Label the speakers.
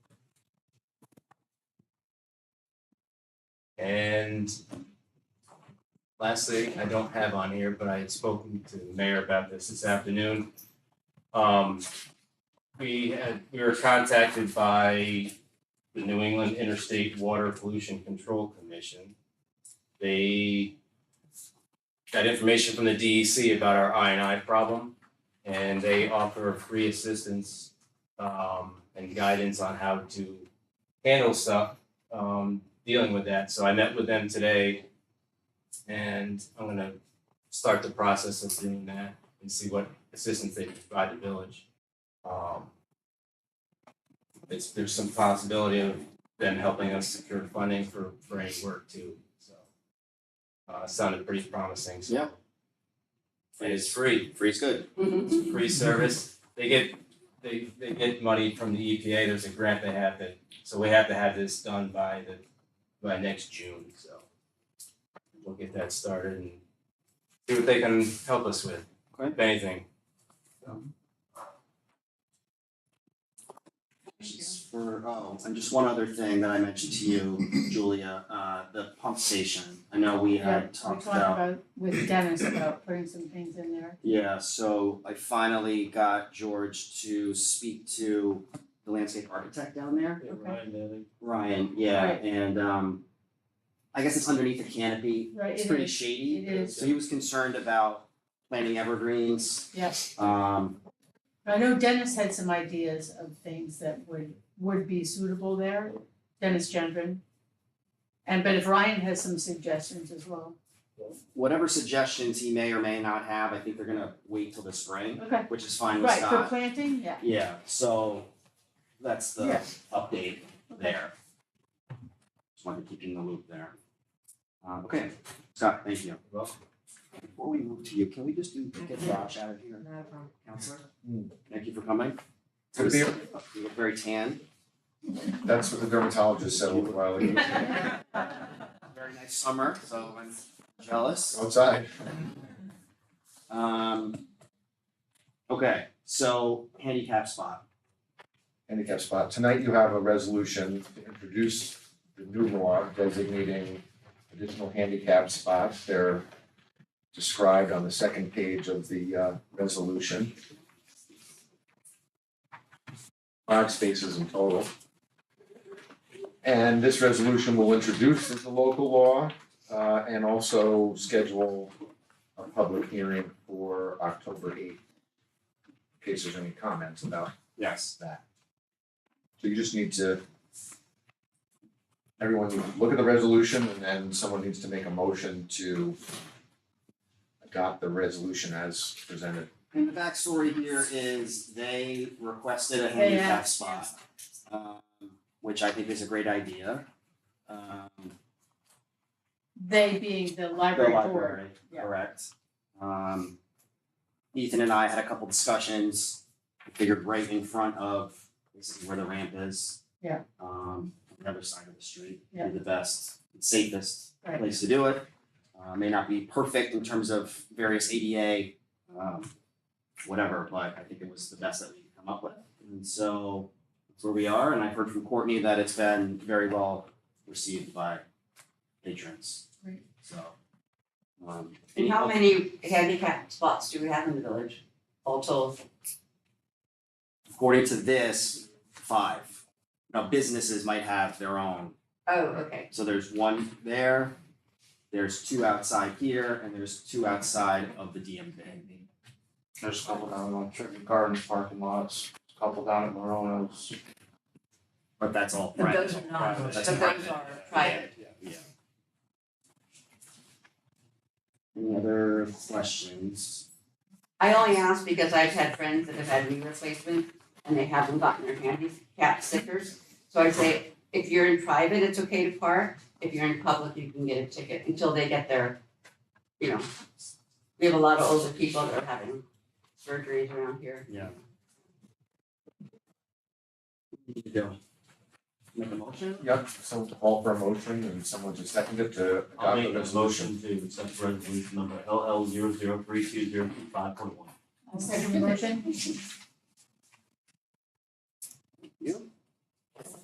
Speaker 1: And lastly, I don't have on here, but I had spoken to the mayor about this this afternoon. Um, we had, we were contacted by the New England Interstate Water Pollution Control Commission. They got information from the DEC about our I and I problem, and they offer free assistance um, and guidance on how to handle stuff um, dealing with that. So I met with them today, and I'm gonna start the process of doing that and see what assistance they can provide the village. Um, it's, there's some possibility of them helping us secure funding for, for any work too, so. Uh, sounded pretty promising, so.
Speaker 2: Yeah.
Speaker 1: And it's free,
Speaker 2: Free's good.
Speaker 1: free service. They get, they, they get money from the EPA, there's a grant they have that, so we have to have this done by the, by next June, so. We'll get that started and see what they can help us with, if anything.
Speaker 2: Just For, oh, and just one other thing that I mentioned to you, Julia, uh, the pump station. I know we
Speaker 3: Yeah,
Speaker 2: had
Speaker 3: We
Speaker 2: talked
Speaker 3: talked
Speaker 2: about,
Speaker 3: about with Dennis about putting some things in there.
Speaker 2: yeah, so I finally got George to speak to the landscape architect down there. Ryan, yeah,
Speaker 3: Right.
Speaker 2: and um, I guess it's underneath the canopy.
Speaker 3: Right,
Speaker 2: It's
Speaker 3: it
Speaker 2: pretty
Speaker 3: is.
Speaker 2: shady.
Speaker 3: It is,
Speaker 2: So he was concerned about planting evergreens.
Speaker 3: yes.
Speaker 2: Um,
Speaker 3: But I know Dennis had some ideas of things that would, would be suitable there, Dennis Gendron. And, but if Ryan has some suggestions as well.
Speaker 2: whatever suggestions he may or may not have, I think they're gonna wait till the spring,
Speaker 3: Okay.
Speaker 2: which is fine with
Speaker 3: Right,
Speaker 2: Scott.
Speaker 3: for planting, yeah.
Speaker 2: Yeah, so that's the
Speaker 3: Yeah.
Speaker 2: update
Speaker 3: Okay.
Speaker 2: there. Just wanted to keep you in the loop there. Um, okay, Scott, thank you. Before we move to you, can we just do, get Josh out of here? Counselor?
Speaker 4: Hmm.
Speaker 2: Thank you for coming.
Speaker 4: Good to be here.
Speaker 2: You look very tan.
Speaker 4: That's what the dermatologist said a little while ago.
Speaker 2: Very nice summer, so I'm jealous.
Speaker 4: Outside.
Speaker 2: Um, okay, so handicap spot.
Speaker 4: handicap spot. Tonight you have a resolution to introduce the new law designating additional handicap spots. They're described on the second page of the uh, resolution. Five spaces in total. And this resolution will introduce the local law uh, and also schedule a public hearing for October eighth. In case there's any comments about
Speaker 2: Yes.
Speaker 4: that. So you just need to, everyone needs to look at the resolution and then someone needs to make a motion to adopt the resolution as presented.
Speaker 2: And the backstory here is they requested a
Speaker 3: They
Speaker 2: handicap
Speaker 3: asked,
Speaker 2: spot, um, which I think is a great idea. Um,
Speaker 3: They being the
Speaker 2: the
Speaker 3: library board.
Speaker 2: library,
Speaker 3: yeah.
Speaker 2: correct. Um, Ethan and I had a couple discussions, figured right in front of basically where the ramp is.
Speaker 3: Yeah.
Speaker 2: Um, the other side of the street,
Speaker 3: Yeah.
Speaker 2: be the best, safest
Speaker 3: Right.
Speaker 2: place to do it. Uh, may not be perfect in terms of various ADA, um, whatever, but I think it was the best that we could come up with. And so that's where we are, and I've heard from Courtney that it's been very well received by patrons.
Speaker 3: Great.
Speaker 2: So. um,
Speaker 5: And how many handicap spots do we have in the village? All told,
Speaker 2: According to this, five. Now businesses might have their own,
Speaker 5: oh, okay,
Speaker 2: so there's one there, there's two outside here, and there's two outside of the DMV.
Speaker 6: There's a couple down on Trinity Gardens parking lots, a couple down at Morono's.
Speaker 2: But that's all
Speaker 5: but
Speaker 2: private,
Speaker 5: those are not,
Speaker 6: Private.
Speaker 5: but
Speaker 2: That's
Speaker 5: those
Speaker 2: private.
Speaker 5: are private.
Speaker 2: yeah. Any other questions?
Speaker 5: I only ask because I've had friends that have had knee replacements and they haven't gotten their handicap stickers. So I say, if you're in private, it's okay to park, if you're in public, you can get a ticket until they get their, you know. We have a lot of older people that are having surgeries around here.
Speaker 2: You do. Make a motion?
Speaker 4: Yep, so to call for a motion and someone to second it to
Speaker 7: I'll
Speaker 4: adopt
Speaker 7: make
Speaker 4: the
Speaker 7: a
Speaker 4: resolution.
Speaker 7: motion to accept resolution number LL zero zero three two zero two five point one.
Speaker 3: I'll second the motion.